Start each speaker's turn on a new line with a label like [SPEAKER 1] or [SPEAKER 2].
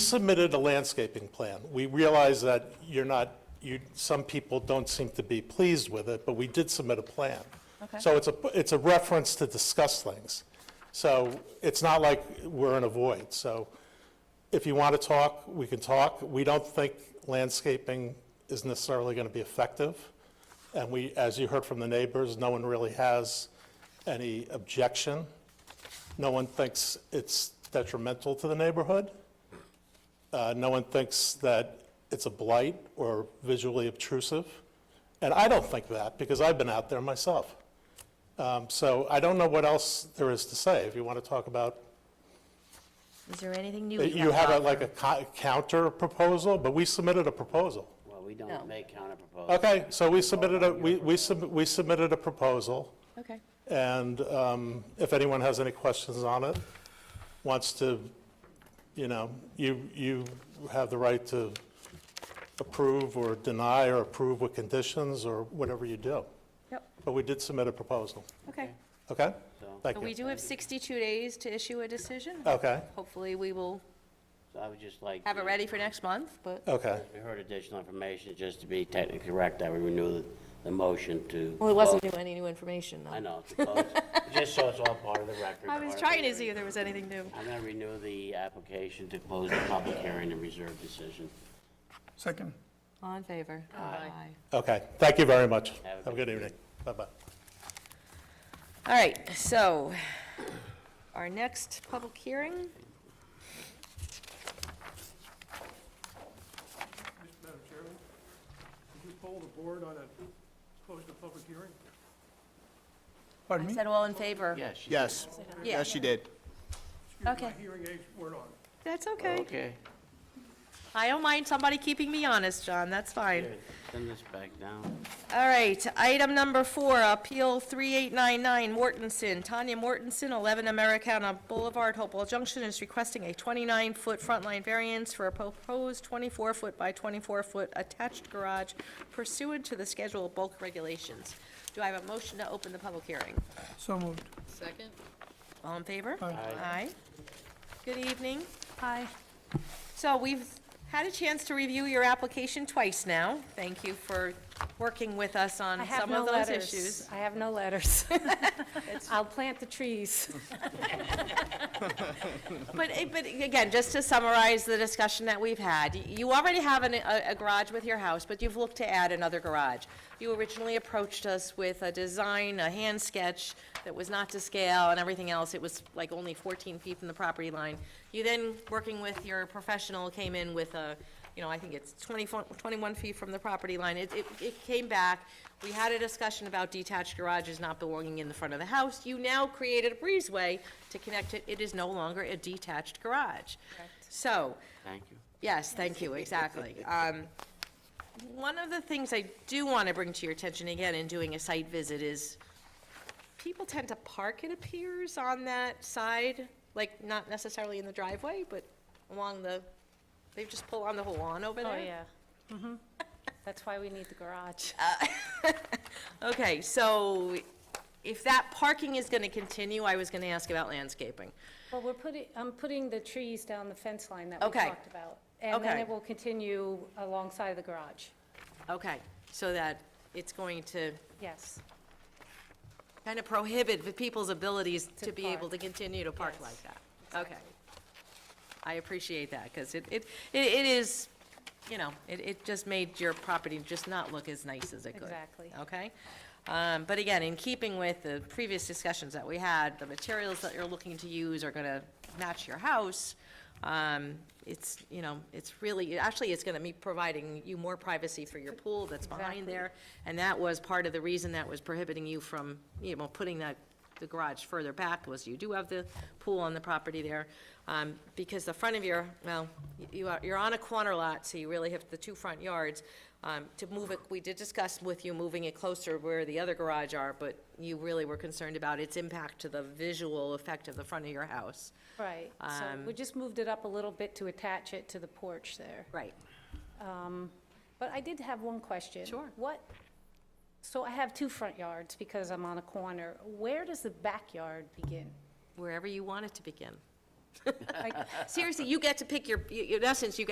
[SPEAKER 1] submitted a landscaping plan. We realize that you're not, you, some people don't seem to be pleased with it, but we did submit a plan.
[SPEAKER 2] Okay.
[SPEAKER 1] So it's a, it's a reference to discuss things. So it's not like we're in a void. So if you want to talk, we can talk. We don't think landscaping is necessarily going to be effective. And we, as you heard from the neighbors, no one really has any objection. No one thinks it's detrimental to the neighborhood. Uh, No one thinks that it's a blight or visually obtrusive. And I don't think that, because I've been out there myself. Um, So I don't know what else there is to say. If you want to talk about,
[SPEAKER 2] Is there anything new? we
[SPEAKER 1] Uh, you have
[SPEAKER 2] to
[SPEAKER 1] a-
[SPEAKER 2] offer?
[SPEAKER 1] like a co- counter proposal, but we submitted a proposal.
[SPEAKER 3] Well, we
[SPEAKER 2] No.
[SPEAKER 3] don't make counterproposals.
[SPEAKER 1] Okay, so we submitted a, we we sub- we submitted a proposal.
[SPEAKER 2] Okay.
[SPEAKER 1] And um, if anyone has any questions on it, wants to, you know, you, you have the right to approve or deny or approve with conditions or whatever you do.
[SPEAKER 2] Yep,
[SPEAKER 1] But we did submit a proposal,
[SPEAKER 2] okay.
[SPEAKER 1] okay?
[SPEAKER 3] So-
[SPEAKER 2] So
[SPEAKER 1] Thank
[SPEAKER 2] we
[SPEAKER 1] you.
[SPEAKER 2] do have 62 days to issue a decision.
[SPEAKER 1] Okay,
[SPEAKER 2] Hopefully, we will
[SPEAKER 3] So I would just like.
[SPEAKER 2] have it
[SPEAKER 3] to-
[SPEAKER 2] ready for next month, but,
[SPEAKER 1] okay.
[SPEAKER 3] We heard additional information, just to be technically correct, I would renew the, the motion to.
[SPEAKER 2] well, it wasn't new, any new information,
[SPEAKER 3] I
[SPEAKER 2] though.
[SPEAKER 3] know, to close. just so it's all part of the record.
[SPEAKER 2] I was
[SPEAKER 3] part of
[SPEAKER 2] trying to
[SPEAKER 3] the-
[SPEAKER 2] see if there was anything new.
[SPEAKER 3] I'm gonna renew the application to close the public hearing and reserve decision.
[SPEAKER 4] Second.
[SPEAKER 2] All in favor? Aye.
[SPEAKER 1] Okay, thank you very much.
[SPEAKER 3] Have a
[SPEAKER 1] Have a
[SPEAKER 3] good
[SPEAKER 1] good evening. Bye-bye.
[SPEAKER 2] All right, so our next public hearing,
[SPEAKER 5] Madam Chairman, could you poll the board on a, close the public hearing?
[SPEAKER 4] Pardon
[SPEAKER 2] I
[SPEAKER 4] me?
[SPEAKER 2] said all in favor.
[SPEAKER 3] Yes. she-
[SPEAKER 6] Yes,
[SPEAKER 2] Yeah.
[SPEAKER 6] yes, she did.
[SPEAKER 5] Excuse me,
[SPEAKER 2] Okay.
[SPEAKER 5] My hearing aids weren't on.
[SPEAKER 2] That's okay.
[SPEAKER 3] Okay,
[SPEAKER 2] I don't mind somebody keeping me honest, John, that's fine.
[SPEAKER 3] Here, send this back down.
[SPEAKER 2] All right, item number four, Appeal 3899 Mortensen. Tanya Mortensen, 11 Americana Boulevard, Hopewell Junction, is requesting a 29-foot front line variance for a proposed 24-foot by 24-foot attached garage pursuant to the schedule of bulk regulations. Do I have a motion to open the public hearing?
[SPEAKER 4] So moved.
[SPEAKER 7] Second?
[SPEAKER 2] All in favor?
[SPEAKER 4] Aye.
[SPEAKER 2] Aye. Good evening. Hi. So we've had a chance to review your application twice now. Thank you for working with us on
[SPEAKER 8] I have
[SPEAKER 2] some
[SPEAKER 8] no
[SPEAKER 2] of those
[SPEAKER 8] letters.
[SPEAKER 2] issues.
[SPEAKER 8] I have no letters. I'll plant the trees.
[SPEAKER 2] But, eh, but again, just to summarize the discussion that we've had, y- you already have an, a a garage with your house, but you've looked to add another garage. You originally approached us with a design, a hand sketch that was not to scale and everything else. It was like only 14 feet from the property line. You then, working with your professional, came in with a, you know, I think it's 24 21 feet from the property line. It, it, it came back. We had a discussion about detached garages not belonging in the front of the house. You now created a breezeway to connect it. It is no longer a detached garage. So,
[SPEAKER 3] Thank you.
[SPEAKER 2] Yes, thank you, exactly. Um, One of the things I do want to bring to your attention again in doing a site visit is people tend to park, it appears, on that side, like not necessarily in the driveway, but along the, they just pull on the whole lawn over there.
[SPEAKER 8] Oh, yeah. That's why we need the garage.
[SPEAKER 2] Okay, so if that parking is going to continue, I was going to ask about landscaping.
[SPEAKER 8] Well, we're putting, I'm putting the trees down the fence line that we
[SPEAKER 2] Okay.
[SPEAKER 8] talked about. And then
[SPEAKER 2] Okay.
[SPEAKER 8] it will continue alongside the garage.
[SPEAKER 2] Okay, so that it's going to
[SPEAKER 8] Yes,
[SPEAKER 2] kind of prohibit the people's abilities to
[SPEAKER 8] To
[SPEAKER 2] be able
[SPEAKER 8] park.
[SPEAKER 2] to continue to park
[SPEAKER 8] Yes,
[SPEAKER 2] like that. Okay. I appreciate that, because it, it, it it is, you know, it, it just made your property just not look as nice as it could.
[SPEAKER 8] Exactly.
[SPEAKER 2] Okay? Um, but again, in keeping with the previous discussions that we had, the materials that you're looking to use are gonna match your house. Um, it's, you know, it's really, actually, it's gonna be providing you more privacy for your pool that's behind
[SPEAKER 8] Exactly.
[SPEAKER 2] there there, and that was part of the reason that was prohibiting you from, you know, putting that, the garage further back, was you do have the pool on the property there, um, because the front of your, well, you are, you're on a corner lot, so you really have the two front yards. Um, to move it, we did discuss with you moving it closer where the other garage are, but you really were concerned about its impact to the visual effect of the front of your house.
[SPEAKER 8] right. So we just moved it up a little bit to attach it to the porch there.
[SPEAKER 2] Right.
[SPEAKER 8] But I did have one question.
[SPEAKER 2] Sure.
[SPEAKER 8] What, so I have two front yards because I'm on a corner. Where does the backyard begin?
[SPEAKER 2] Wherever you want it to begin. Like, Seriously, you get to pick your, you- in essence, you get